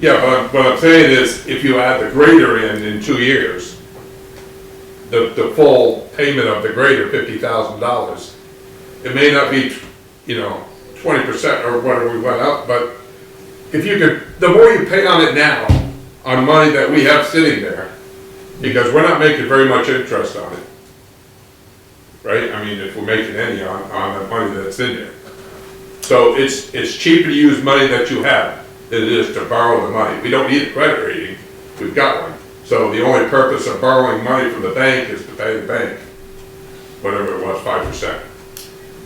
Yeah, but what I'm saying is, if you add the grader in in two years, the, the full payment of the grader, fifty thousand dollars, it may not be, you know, twenty percent or whatever we went up, but if you could, the more you pay on it now, on money that we have sitting there, because we're not making very much interest on it. Right, I mean, if we're making any on, on the money that's in there. So it's, it's cheaper to use money that you have than it is to borrow the money. We don't need a credit rating, we've got one. So the only purpose of borrowing money from the bank is to pay the bank, whatever it was, five percent.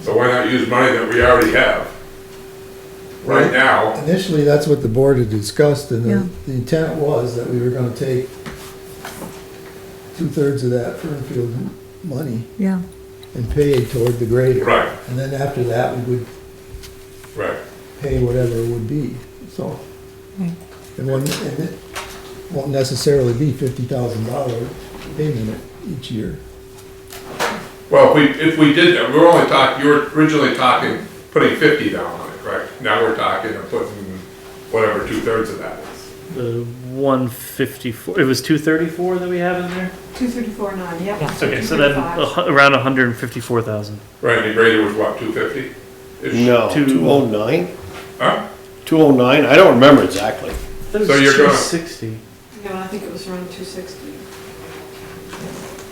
So why not use money that we already have right Right. now? Initially, that's what the board had discussed, and Yeah. the- the intent was that we were gonna take two-thirds of that Fernfield money yeah. and pay it toward the grader. Right, And then after that, we would right. pay whatever it would be, so. Right. And one, and it won't necessarily be fifty thousand dollar payment each year. Well, if we, if we did that, we were only talking, you were originally talking putting fifty down on it, correct? Now we're talking of putting whatever two-thirds of that is. The Uh, one fifty-four, it was two thirty-four that we have in there? Two thirty-four nine, yep. Okay, so then uh, a 235. hu- around hundred and fifty-four thousand. Right, the grader was what, two fifty? No, Two- two oh nine, Huh? two oh nine, I don't remember exactly. That was So you're two gonna- sixty. No, I think it was around two sixty.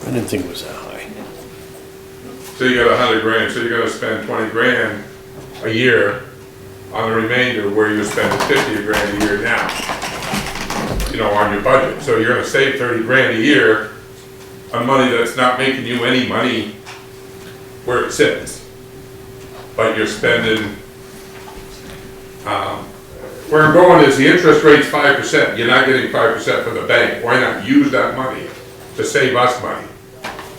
I didn't think it was that high. So you got a hundred grand, so you're gonna spend twenty grand a year on the remainder where you're spending fifty grand a year now. You know, on your budget, so you're gonna save thirty grand a year on money that's not making you any money where it sits. But you're spending, um, where I'm going is the interest rate's five percent, you're not getting five percent from the bank, why not use that money to save us money?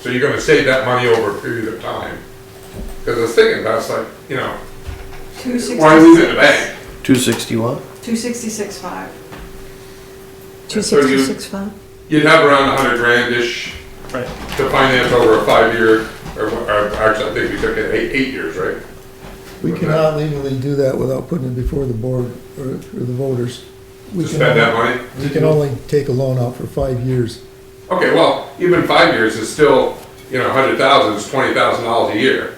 So you're gonna save that money over a period of time. Cause I was thinking about, it's like, you know, Two sixty-six. why leave it in the bank? Two sixty-one? Two sixty-six five. Two So you- sixty six five. You'd have around a hundred grand-ish Right. to finance over a five-year, or, or actually, I think we took it eight, eight years, right? We cannot legally do that without putting it before the board or, or the voters. We To can spend that only- money? We can only take a loan out for five years. Okay, well, even five years is still, you know, a hundred thousand is twenty thousand dollars a year.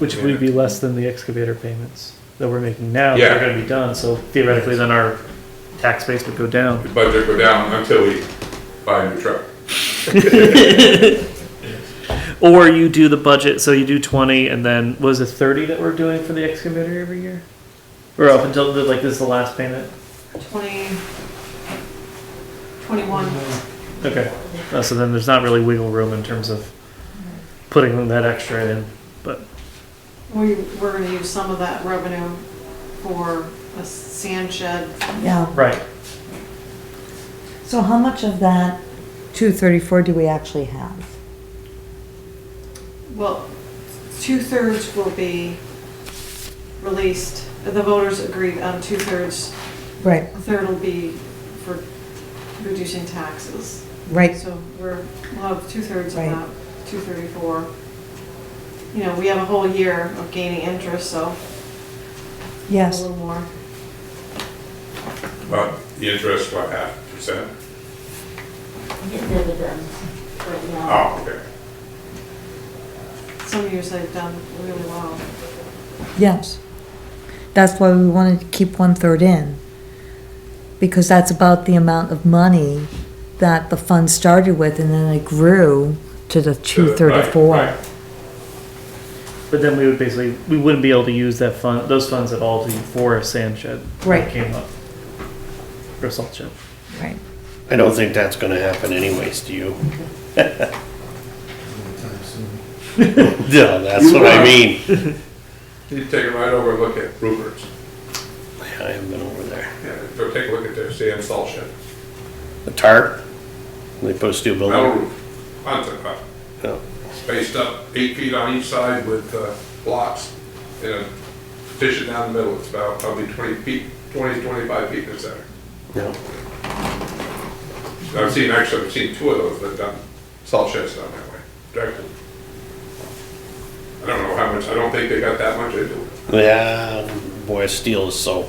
Which would be less than the excavator payments that we're making now, Yeah. that are gonna be done, so theoretically then our tax base would go down. The budget go down until we buy a new truck. Or you do the budget, so you do twenty, and then, was it thirty that we're doing for the excavator every year? Or up until, the- like, this is the last payment? Twenty. Twenty-one. Okay, Uh, so then there's not really wiggle room in terms of putting that extra in, but. We, we're gonna use some of that revenue for a sand shed. Yeah. Right. So how much of that two thirty four do we actually have? Well, two-thirds will be released. The voters agreed on two-thirds. Right, A third will be for reducing taxes. right. So we're, we'll have two-thirds of Right. that, two thirty-four. You know, we have a whole year of gaining interest, so a Yes. little more. But the interest, what, half percent? I get dividends right now. Oh, okay. Some years they've done really well. Yes. That's why we wanted to keep one-third in, because that's about the amount of money that the fund started with, and then it grew to the two Right, thirty-four. right. But then we would basically, we wouldn't be able to use that fund, those funds at all to, for a sand shed. that Right. Came up. Or a salt shed. Right. I don't think that's gonna happen anyways, do you? Yeah, that's what I mean. You take it right over and look at Rupert's. I haven't been over there. Yeah, go take a look at their sand salt shed. The tarp, they put a steel metal building. roof, concert pop, Yeah. spaced up eight feet on each side with uh, blocks and a partition down the middle. It's about probably 20 feet, 20, 25 feet in the center. Yeah. I've seen, actually, I've seen two of those that done, salt sheds done that way, directly. I don't know how much, I don't think they got that much into it. Yeah, boy, steel is so